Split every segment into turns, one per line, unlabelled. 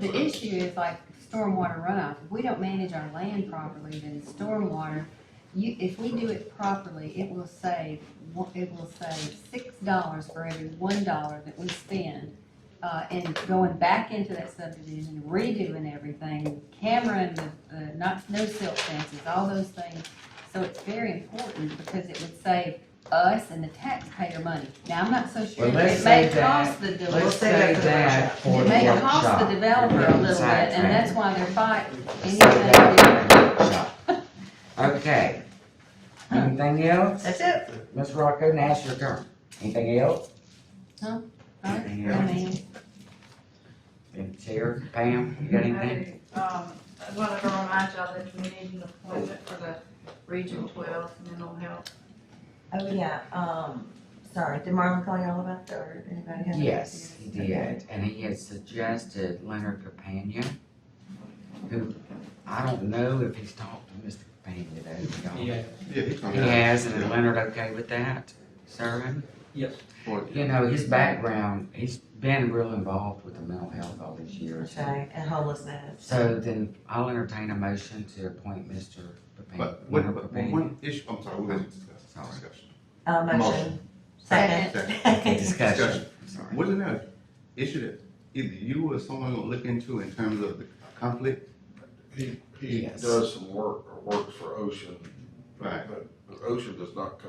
The issue is like stormwater runoff, if we don't manage our land properly, then stormwater, you, if we do it properly, it will save, one- it will save six dollars for every one dollar that we spend. Uh, and going back into that subdivision, redoing everything, cameraing the, the, not, no silt fences, all those things. So it's very important because it would save us and the taxpayer money. Now, I'm not so sure,
Well, let's
it may
save that.
cost the developer.
Let's save that for
It
the
may
workshop.
cost the developer a little bit, and that's why they're fighting anything.
Exactly. Okay. Anything else?
That's it.
Ms. Rocco, now's your turn. Anything else?
I mean,
And Chair, Pam, you got anything?
Um, I wanted to remind y'all that we need an appointment for the Region Twelve Mental Health.
Oh, yeah, um, sorry, did Marlon call y'all about that, or anybody have?
Yes, he did, and he had suggested Leonard Capania, who, I don't know if he's talked to Mr. Capania though. we don't.
Yeah,
He has, and is Leonard okay with that, serving?
yes.
You know, his background, he's been real involved with the mental health all these years.
Okay, and homelessness.
So then I'll entertain a motion to appoint Mr. Pepin,
But one,
Leonard
but
Pepin.
one issue, I'm sorry, we wasn't discussing,
Sorry.
discussion.
Uh, motion.
Motion.
Second.
Okay, discussion, sorry.
Wasn't there an issue that either you or someone gonna look into in terms of the conflict?
He, he
Yes.
does some work, or works for Ocean,
Right.
but but Ocean does not, co-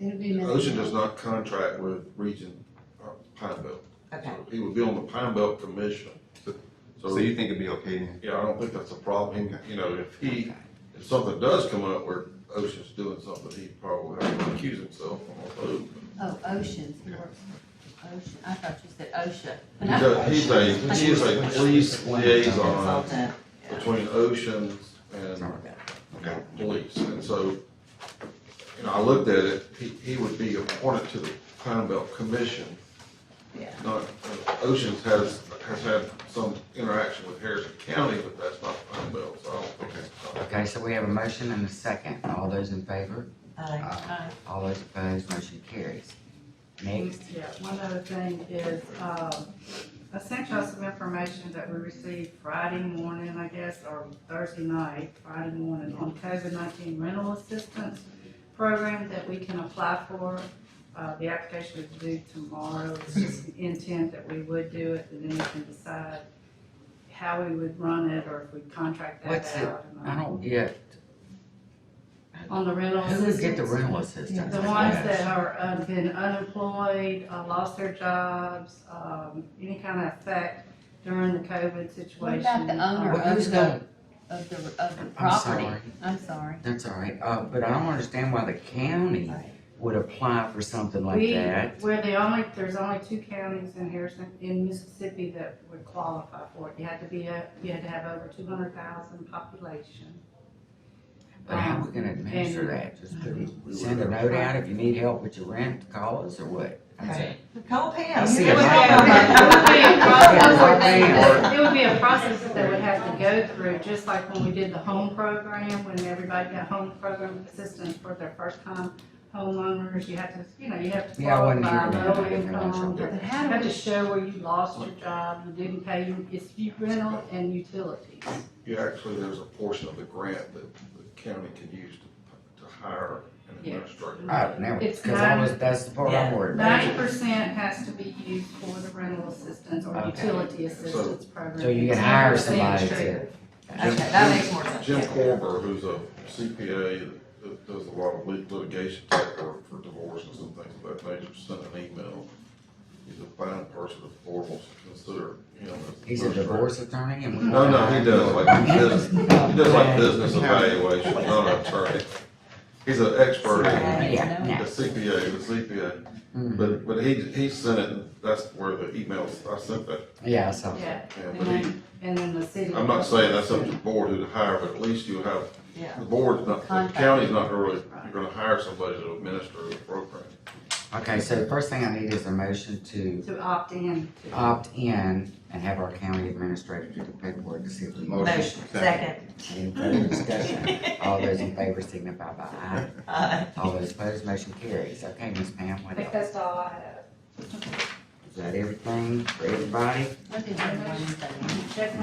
it'd be nice.
Ocean does not contract with Region uh, Pine Belt.
Okay,
So He would be on the Pine Belt Commission.
So
So,
you think it'd be okay then?
yeah, I don't think that's a problem, He- you know, if he, if something does come up where Ocean's doing something, he probably have to accuse himself on a vote.
Oh, oceans, ocean, I thought you said OSHA.
He does- He's a, he is a police liaison
consultant.
between Ocean and
Sorry.
Okay.
police, and so, you know, I looked at it, he, he would be appointed to the Pine Belt Commission.
Yeah.
Not, Oceans has, has had some interaction with Harrison County, but that's not Pine Belt, so I don't think it's.
Okay, so we have a motion and a second. All those in favor?
Aye.
Aye.
All those opposed, motion carries. Next,
Yeah, one other thing is, um, I sent y'all some information that we received Friday morning, I guess, or Thursday night, Friday morning, on COVID nineteen rental assistance program that we can apply for. Uh, the application is due tomorrow, it's just the intent that we would do it, and then we can decide how we would run it, or if we contract that
What's it?
out. or
I
not.
don't get,
On the rental
who
assistance.
would get the rental assistance?
The
I
ones
guess?
that are, uh, been unemployed, uh, lost their jobs, um, any kind of effect during the COVID
What
situation. uh,
about the owner
Well,
of
who's
the,
gonna,
of the, of the
I'm
property?
sorry,
I'm sorry.
that's all right, uh, but I don't understand why the county would apply for something like
We-
that.
We're the only, there's only two counties in Harrison, in Mississippi that would qualify for it. You had to be, a- you had to have over two hundred thousand population.
But how are
Um,
we gonna administer
and-
that? Just put- send a note out if you need help with your rent, call us or what? That's it.
Call Pam.
I see
You
a
know what
lot of
happened.
It would be a process-
Yeah.
it would be a process that they would have to go through, just like when we did the home program, when everybody got home program assistance for their first time homeowners, you have to, you know, you have to
Yeah, I wasn't
qualify,
here
low
when that
income.
happened.
You
But how
have
do
to
we,
show where you lost your job, you didn't pay, your- it's you- rental and utilities.
You actually, there's a portion of the grant that the county can use to, to hire an
Yeah.
administrator.
I do
It's
cause I
nine-
was, that's the part I'm worried
Ninety
about.
percent has to be used for the rental assistance or
Okay.
utility assistance program.
So you can
10%
hire somebody
is
to.
Okay, that makes more sense.
Jim
yeah.
Corber, who's a CPA that- that does a lot of lit- litigation type work for divorces and things of that nature, sent an email. He's a fine person, if the board wants to consider him. as-
He's a divorce attorney and we.
No, no, he does, like, he does, he does like business evaluation, not an attorney. He's an expert, in-
Yeah,
a
yeah.
CPA, the CPA,
Mm,
but, but he, he sent it, and that's where the emails, I sent that,
Yeah, so,
Yeah,
and,
and
but he,
then, and then the city.
I'm not saying that's up to the board who to hire, but at least you have
Yeah.
The board's not, the
Contract.
county's not gonna really, you're gonna hire somebody to administer the program.
okay, so the first thing I need is a motion to
To opt in. to-
opt in and have our county administrator do the paperwork to see if we.
Motion, second.
Any further discussion? All those in favor signify by aye.
Aye.
All those opposed, motion carries. Okay, Ms. Pam,
I
what
think
else?
that's all I have.
Is that everything for everybody?
What did everybody say?
Check